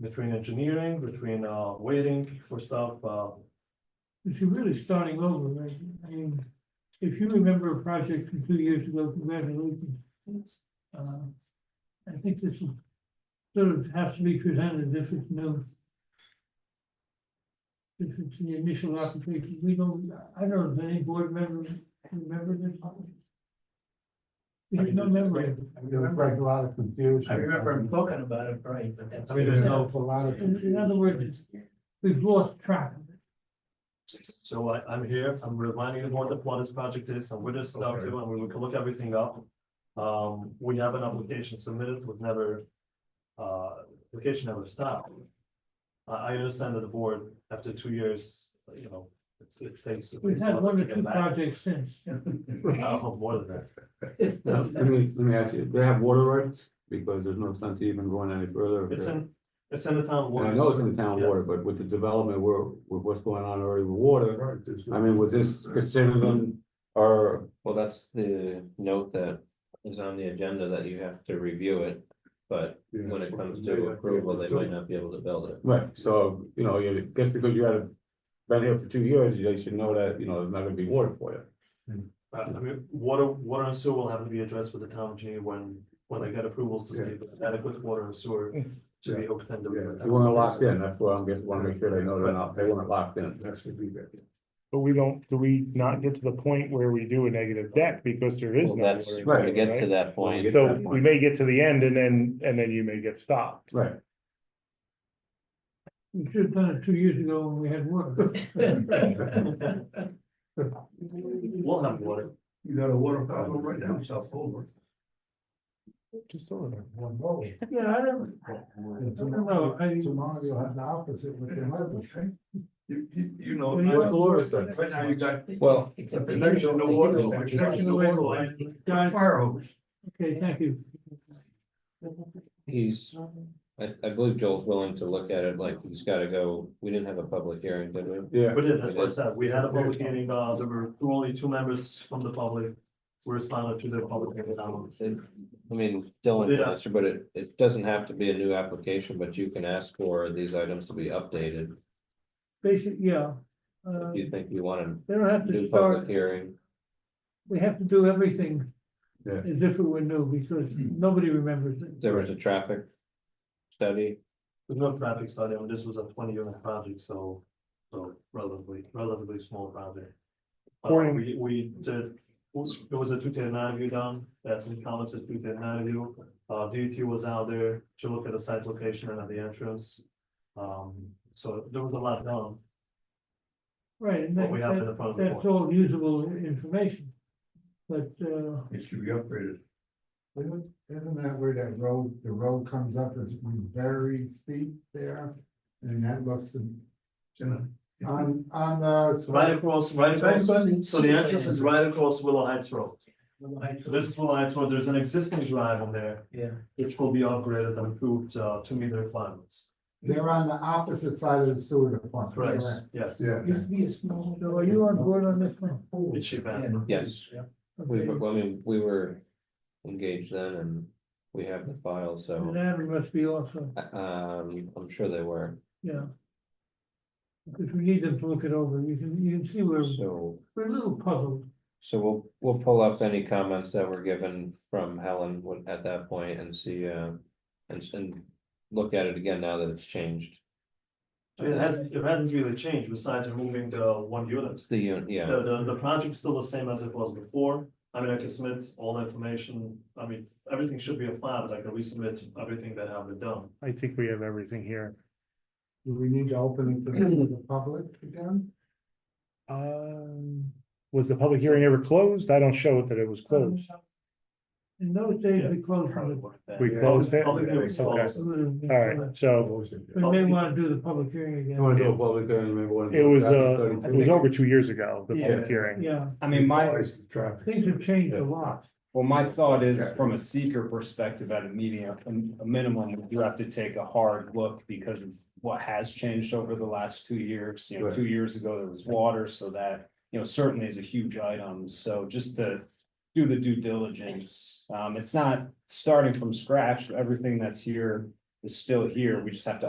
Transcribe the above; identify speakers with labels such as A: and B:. A: between engineering, between, uh, waiting for stuff, uh,
B: But you're really starting over, right? I mean, if you remember a project from two years ago, congratulations. Uh, I think this will sort of has to be presented if it's no. If it's the initial application, we don't, I don't know, if any board member remember this? There's no memory. of it.
C: There was like a lot of confusion.
D: I remember
C: Um,
D: him talking about it, right, but that's.
A: I mean, there's
C: There
A: no,
C: was a lot of.
B: In in other words, we've lost track of it.
A: so I, I'm here, I'm reminding the board of what this project is, and where this stuff to, and we can look everything up. Um, we have an application submitted, was never, uh, application never stopped. I, I understand that the board, after two years, you know, it's, it takes. it
B: We've
A: takes a
B: had
A: lot
B: one
A: to
B: or
A: get
B: two
A: back.
B: projects since.
A: Oh, more than that.
E: Let me, let me ask you, do they have water rights? Because there's no sense even going any further. if
A: It's
E: they're-
A: in, it's in the town.
E: And I
A: waters.
E: know it's in the town
A: Yes.
E: water, but with the development, where, with what's going on already with water, I mean, was this considered an, or,
F: Well, that's the note that is on the agenda that you have to review it, but when it comes to approval, they might not be able to build it.
E: right, so, you know, you, just because you had been here for two years, you should know that, you know, there's not gonna be water for you.
A: Uh, I mean, water, water and sewer will have to be addressed with the town engineer when, when they get approvals to see if there's adequate water and sewer to be hooked into.
E: They weren't locked in, that's why I'm just wanna make sure they know they're not, they weren't locked in.
G: But we don't, do we not get to the point where we do a negative deck because there is
F: Well,
G: no.
F: That's,
G: water
F: we're gonna
G: in there,
F: get to
G: right?
F: that
E: When we get
F: point.
E: to
G: So
E: that
G: we
E: point.
G: may get to the end and then, and then you may get stopped.
E: Right,
B: We should have done it two years ago when we had water.
A: We'll have water.
C: You got a water
E: problem right now,
C: South Boulevard.
G: Just over there.
C: One road.
B: Yeah, I don't,
C: Tomorrow, tomorrow you'll have the opposite with the weather.
H: You, you, you know.
B: When
E: What's Laura said?
H: Right now you got
E: Well-
H: a connection to water, a connection to water line,
B: Guys,
H: fire hose.
B: okay, thank you.
F: He's, I, I believe Joel's willing to look at it, like, he's gotta go, we didn't have a public hearing, did we?
E: yeah.
A: We did, that's what I said. We had a public hearing, uh, there were two- only two members from the public. who responded to the public hearing. um,
F: It- I mean, Dylan
A: Yeah.
F: can answer, but it, it doesn't have to be a new application, but you can ask for these items to be updated.
B: Basic, yeah. Uh,
F: If you think you want a
B: they don't have to
F: new public
B: start,
F: hearing,
B: we have to do everything
E: Yeah.
B: as if it were new because nobody remembers it.
F: there was a traffic study.
A: There's no traffic study, and this was a twenty unit project, so, so relatively, relatively small project. Uh,
G: Morning.
A: we, we did, there was a two ten nine view done, that's in comments at two ten nine view. Uh, DET was out there to look at the site location and at the entrance. Um, so there was a lot done,
B: Right, and
A: what we have in
B: that,
A: the front of the
B: that's
A: board.
B: all usable information. But, uh,
H: It should be upgraded.
C: Isn't isn't that where that road, the road comes up is very steep there? And that looks on, on the.
A: Right across, right across, so the entrance is right
D: across.
A: across Willow Heights Road. So This is Willow Heights Road, there's an existing drive on there,
D: Yeah.
A: which will be upgraded and improved, uh, to meet the requirements.
C: They're on the opposite side of the sewer department.
A: Yes.
C: Yeah.
D: Used to be a small.
B: so are you on board on this one?
A: It should be.
F: Yes. We,
B: Okay.
F: were- I mean, we were engaged then and we have the file,
B: And
F: so,
B: Adam must be also,
F: uh, um, I'm sure they were,
B: yeah. Because we need them to look it over. You can, you can see we're,
F: so.
B: we're a little puzzled.
F: So we'll, we'll pull up any comments that were given from Helen wa- at that point and see, uh, and, s- and look at it again now that it's changed.
A: I mean, It hasn't, it hasn't really changed besides removing the one unit.
F: The, un- yeah,
A: The, the, the project's still the same as it was before. I mean, I can submit all the information. I mean, everything should be a file, but I can resubmit everything that I've been done.
G: I think we have everything here.
C: Do we need to open it to the public again?
G: Um, was the public hearing ever closed? I don't show it that it was closed.
B: Um, In those days, we closed.
A: Probably
B: them.
A: worth that.
G: We closed it?
A: Public hearing is
G: Okay.
A: closed.
G: All right, so
B: We may want to do the public hearing
E: You wanna
B: again.
E: do a public hearing, maybe one.
G: it was, uh, it was over two years ago, the
E: Yeah.
G: public hearing.
B: Yeah,
I: I mean, my,
B: things have changed a lot.
I: well, my thought is from a seeker perspective at a meeting, a, a minimum, you have to take a hard look because of what has changed over the last two years. You know,
E: Right.
I: two years ago, there was water, so that, you know, certainly is a huge item. So just to do the due diligence. Um, it's not starting from scratch. Everything that's here is still here. We just have to